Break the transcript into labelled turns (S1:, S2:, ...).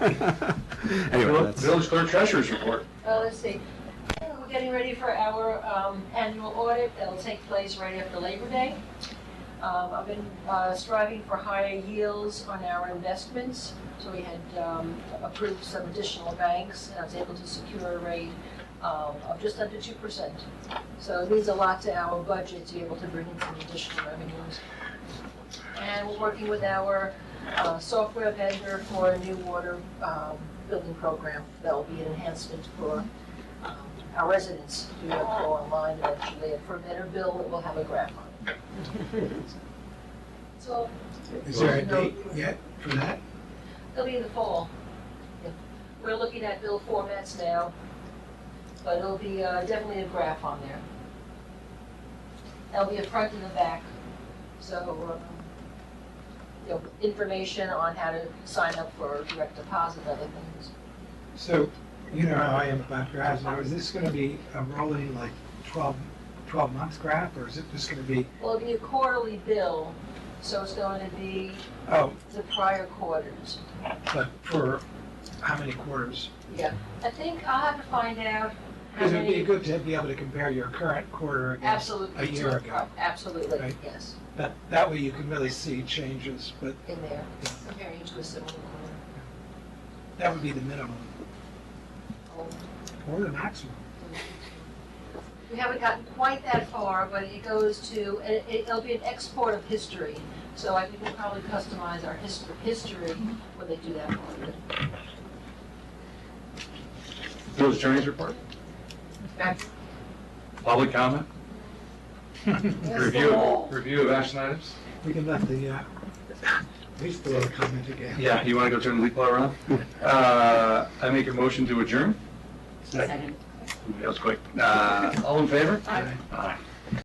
S1: Anyway,
S2: Vill-
S1: that's-
S2: Village Clerk Treasurer's Report.
S3: Uh, let's see, we're getting ready for our um, annual audit that'll take place right after Labor Day. Um, I've been uh, striving for higher yields on our investments, so we had um, approved some additional banks, and I was able to secure a rate um, of just under two percent. So it means a lot to our budget to be able to bring in some additional revenues. And we're working with our uh, software vendor for a new water um, building program that will be an enhancement for um, our residents to be able to go online eventually. And for a better bill, it will have a graph on it. So
S4: Is there a date yet for that?
S3: it'll be in the fall. Yeah. We're looking at bill formats now, but it'll be uh, definitely a graph on there. That'll be a front and a back, so, um, you know, information on how to sign up for direct deposit, other things.
S4: So, you know how I am about graphs, now is this gonna be a rolling like 12 12 month graph, or is it just gonna be,
S3: Well, it'll be a quarterly bill, so it's going to be
S4: oh,
S3: the prior quarters.
S4: but for how many quarters?
S3: Yeah, I think I'll have to find out how
S4: Because it'd be
S3: many.
S4: good to be able to compare your current quarter against,
S3: Absolutely.
S4: a year ago.
S3: Absolutely,
S4: Right.
S3: yes,
S4: that, that way you can really see changes, but
S3: in there, comparing it to a similar quarter.
S4: that would be the minimum,
S3: Oh,
S4: or the maximum.
S3: We haven't gotten quite that far, but it goes to, it- it'll be an export of history. So I think we'll probably customize our history, history when they do that part of it.
S2: Village Attorney's Report.
S3: Back-
S2: Public comment. Review, of- review of action items.
S4: We can let the, uh, police bureau comment again.
S2: Yeah, you want to go turn the leaf blower on? Uh, I make a motion to adjourn.
S5: Second.
S2: That was quick. Uh, All in favor?
S4: Aye.
S2: Aye.